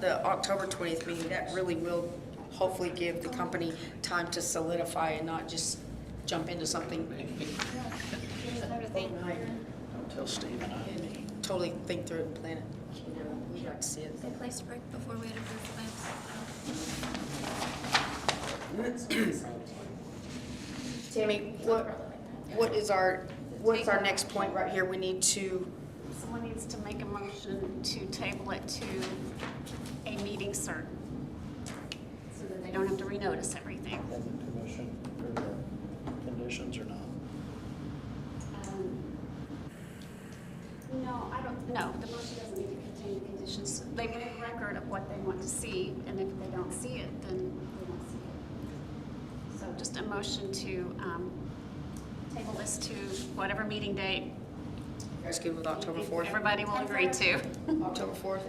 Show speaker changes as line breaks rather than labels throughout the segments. the October 20th meeting, that really will hopefully give the company time to solidify and not just jump into something,
Tell Steve and I.
totally think through it and plan it. We'd like to see it.
Good place to break before we had approved plans.
Tammy, what, what is our, what's our next point right here? We need to,
Someone needs to make a motion to table it to a meeting certain. So that they don't have to renotice everything.
Amend the commission or the conditions or not?
Um, No, I don't, no, the motion doesn't need to contain the conditions. They make record of what they want to see, and if they don't see it, then they don't see it. So just a motion to um, table this to whatever meeting date
you guys good with October 4th?
everybody will agree to.
October 4th?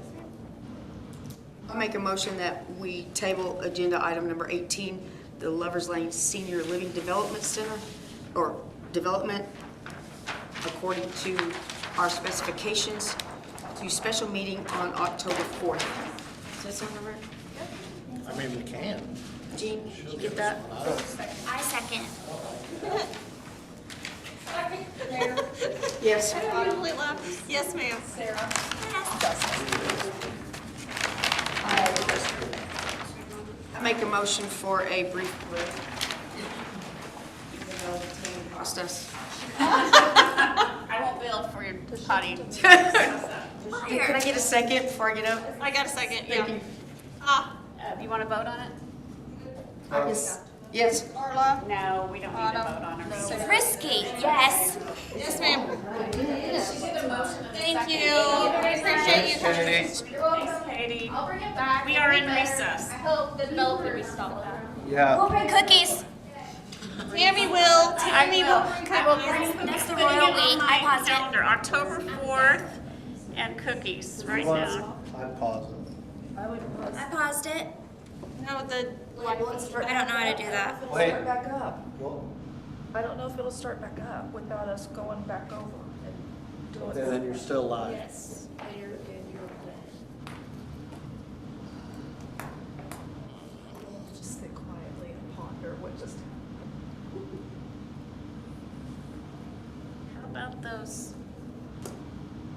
I make a motion that we table agenda item number 18, the Lovers Lane Senior Living Development Center, or development according to our specifications, to special meeting on October 4th. Does that sound right?
I mean, we can.
Jean, you get that?
I second.
Yes.
Yes, ma'am. Sarah.
I make a motion for a brief break. Even though Tammy Cost us.
I won't bill for your potty.
Can I get a second before I get up?
I got a second, yeah.
Thank you.
Ah, uh, you want to vote on it?
Yes. Yes.
Carla?
No, we don't need to vote on it.
Frisky, yes.
Yes, ma'am. Thank you. Appreciate you.
Katie,
I'll bring it back.
we are
It'll
in
be better.
recess.
I hope the developer responds.
Yeah.
We'll bring cookies.
Tammy will, Tammy will bring cookies.
That's the
Putting it
royal
on
we.
my
I pause it.
calendar, October 4th and cookies right now.
I pause it.
I paused it.
No, the,
I don't know how to do that.
Wait,
back up.
well,
I don't know if it'll start back up without us going back over and doing.
okay, then you're still live.
Yes. Later, and you're okay.
Just sit quietly and ponder what just happened.
How about those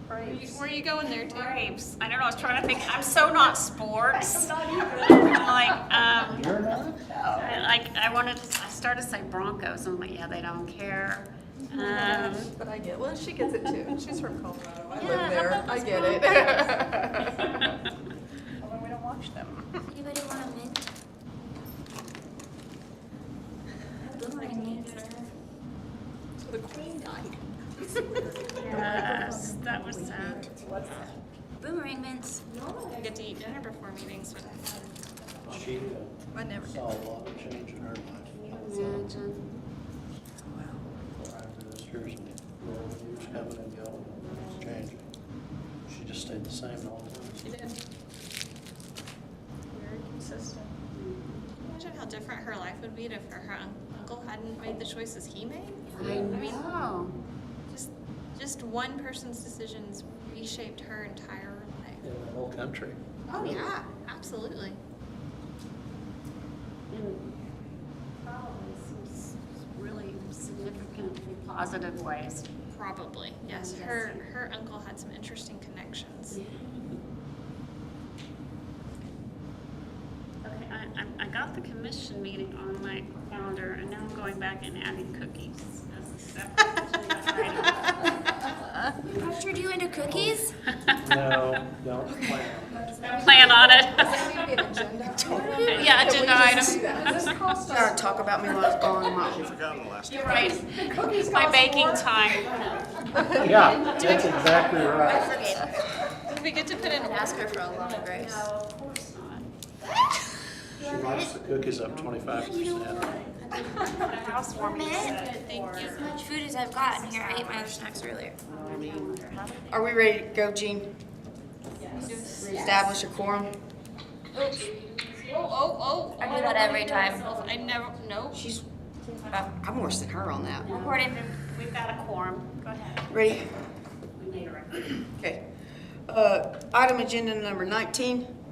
where are you going there, Tammy?
grapes? I don't know, I was trying to think, I'm so not sports. Like, um,
You're not?
I- like, I wanted, to- I started to say Broncos, I'm like, yeah, they don't care. Um,
But I get, well, she gets it too. She's from Colorado. I
Yeah, how
live there.
about
I
those
get it. Although we don't watch them.
Anybody want a mint?
The queen died.
Yes, that was sad.
Boomerang mints.
I get to eat dinner before meetings, but
She
I never
uh,
did.
saw a lot of change in her life.
Imagine.
Over those years, and the old years coming and going, it was changing. She just stayed the same the whole time.
Very consistent.
imagine how different her life would be if her un- uncle hadn't made the choices he made.
I know.
Just, just one person's decisions reshaped her entire life.
In the whole country.
Oh, yeah, absolutely.
in probably some s- really significantly positive ways.
Probably, yes. Her, her uncle had some interesting connections.
Okay, I, I, I got the commission meeting on my calendar, and now I'm going back and adding cookies as a separate agenda
After you into cookies?
No, don't plan.
item. Plan on it. Yeah, agenda item.
Gotta talk about me while I was gone. Mom.
You're right. My baking time.
Yeah, that's exactly right.
We get to put in
Ask her for a lot of grace.
Of course not.
She likes the cookies up twenty-five percent.
The housewarming set for.
As much food as I've gotten here. I ate my other snacks earlier.
Are we ready to go, Jean? Reestablish a quorum?
Oh, oh, oh.
I do that every time.
I never, no.
She's, I'm worse than her on that.
Recorded.
We've got a quorum. Go ahead.
Ready?
We need a record.
Okay. Uh, Item agenda number 19,